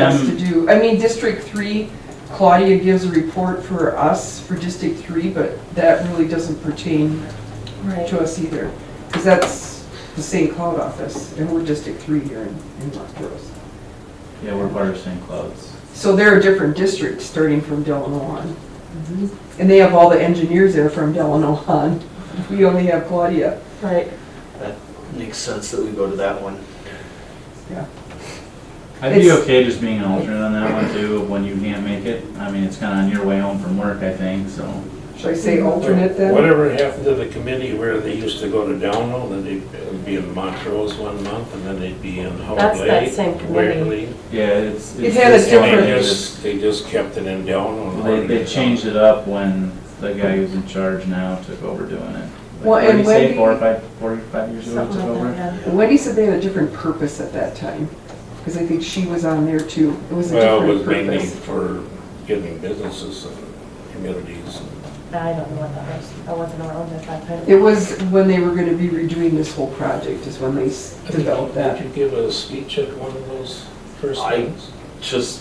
us Um, to do. I mean, District Three, Claudia gives a report for us, for District Three, but that really doesn't pertain Right. to us either. Because that's the St. Cloud office, and we're District Three here in, in Los Groves. Yeah, we're part of St. Cloud's. So they're a different district, starting from Delano on. And they have all the engineers there from Delano on. We only have Claudia. Right. Makes sense that we go to that one. I'd be It's- okay just being an alternate on that one too, when you can't make it. I mean, it's kinda on your way home from work, I think, so. Should I say alternate then? Whatever happened to the committee where they used to go to Downhill, then they'd be in Montrose one month, and then they'd be in Hope That's that Lake, same committee. Waverly. Yeah, it's. It had a it's- And different- they just, they just kept it in Downhill. They, they changed it up when the guy who's in charge now took over doing it. Like, Well, what did and he say, Wendy- four or five, four or five years ago it Something took like over? that, Wendy said they had a different purpose at that time, because I think she was on there too. It was a Well, it different was mainly purpose. for getting businesses and communities. yeah. I don't know what that was. I wasn't around at that time. It was when they were gonna be redoing this whole project is when they s- developed that. Did you give a speech at one of those first I- things? Just,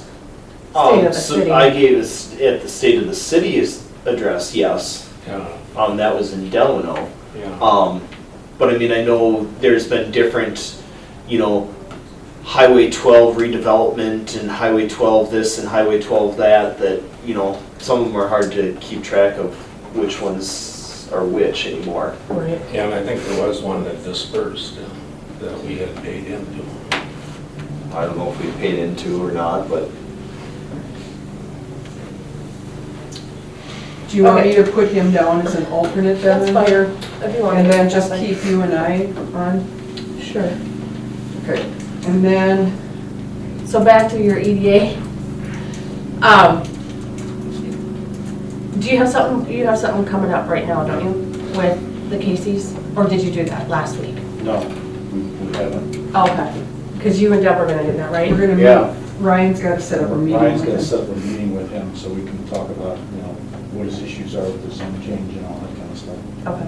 of um, the so city. I gave us, at the State of the City's address, yes, Yeah, um, that was in Delano. yeah. Um, but I mean, I know there's been different, you know, Highway twelve redevelopment and Highway twelve this and Highway twelve that, that, you know, some of them are hard to keep track of which ones are which anymore. Right. Yeah, and I think there was one that dispersed uh, that we had paid into. I don't know if we paid into or not, but Do you want me Okay. to put him down as an alternate then? That's fine. If you want. And then to- just that's keep you and I on? fine. Sure. Okay. And then, So back to your EDA. Um, do you have something, you have something coming up right now, don't you, with the Casey's? Or did you do that last week? No, we we haven't. Okay, because you and Deb are gonna do that, we're right? gonna Yeah. meet, Ryan's gotta set up a meeting Ryan's got to with him. set up a meeting with him so we can talk about, you know, what his issues are with the zone change and all that kind of stuff. Okay.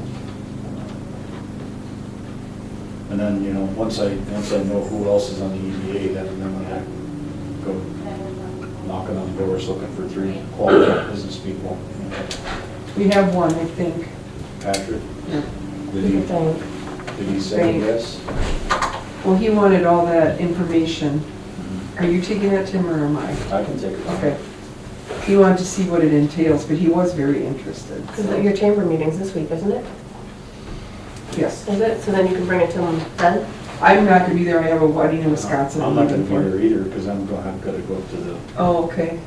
And then, you know, once I, once I know who else is on the EDA, then then when I go knocking on doors looking for three qualified business people. you know, We have one, I think. Patrick, Yeah. did You he, think. did he say Right. yes? Well, he wanted all that information. Are you taking that to him or am I? I can take it. Okay. He wanted to see what it entails, but he was very interested. so- Because your chamber meeting's this week, isn't it? Yes. Is it? So then you can bring it to them then? I'm not gonna be there. I have a wedding in Wisconsin. I'm not going leaving to for- be there either because I'm going, I've got to go up to the, Oh, okay.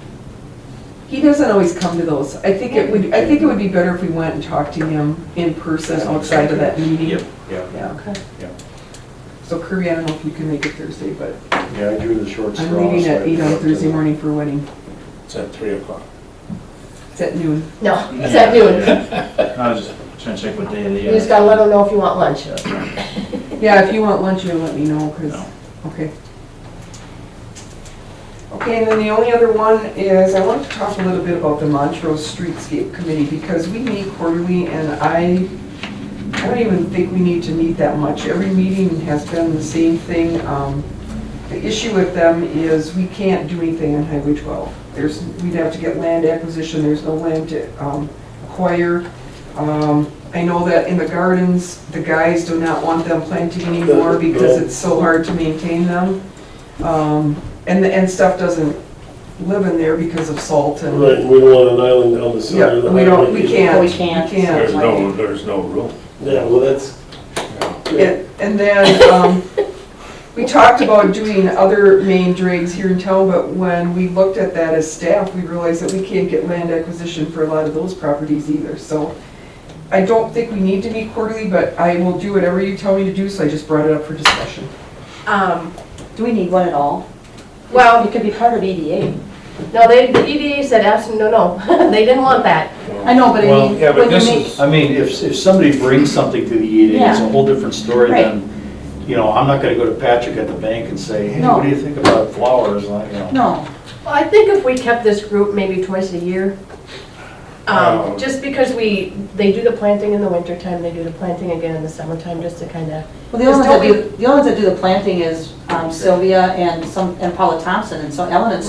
He doesn't always come to those. I think it would, I think it would be better if we went and talked to him in person outside of that meeting. Yep. yeah, Yeah. Okay. So Kirby, I don't know if you can make it Thursday, but yeah, I drew the short straw. I'm leaving so at I eight oh go on up to Thursday the- morning for a wedding. It's at three o'clock. It's at noon. No, it's at noon. I was just trying to check what day of the You year. just gotta let them know if you want lunch. Yeah, if you want lunch, you'll let me know, because, No. okay. Okay, and then the only other one is, I want to talk a little bit about the Montrose Streetscape Committee, because we meet quarterly, and I, I don't even think we need to meet that much. Every meeting has been the same thing. Um, The issue with them is we can't do anything on Highway 12. There's, we'd have to get land acquisition, there's no land to um, acquire. Um, I know that in the gardens, the guys do not want them planting anymore because it's so hard to maintain them. Um, And, the- and stuff doesn't live in there because of salt and. Right, we don't want an island down the Yeah, center of the we don't, we highway. can't. We can't. We There's no, there's no room. Yeah, well, that's, And and then, um, we talked about doing other main drains here in town, but when we looked at that as staff, we realized that we can't get land acquisition for a lot of those properties either, so I don't think we need to meet quarterly, but I will do whatever you tell me to do, so I just brought it up for discussion. Um, Do we need one at all? well, It could be part of E EDA. no, they, the EDA said absolutely, no, no, they didn't want that. I know, but I Well, mean, yeah, but when you this make, is- I mean, if, if somebody brings something to the EDA, it's a Yeah. whole different story than, you know, I'm not gonna go to Patrick at the bank and say, hey, what do you think about flowers, like, you know? no, Well, I think if we kept this group maybe twice a year, Um, Um, just because we, they do the planting in the wintertime, they do the planting again in the summertime, just to kind of, Well, the only ones Just don't that do, the only ones that do the planting is um, Sylvia and some, and Paula Thompson, and so Ellen and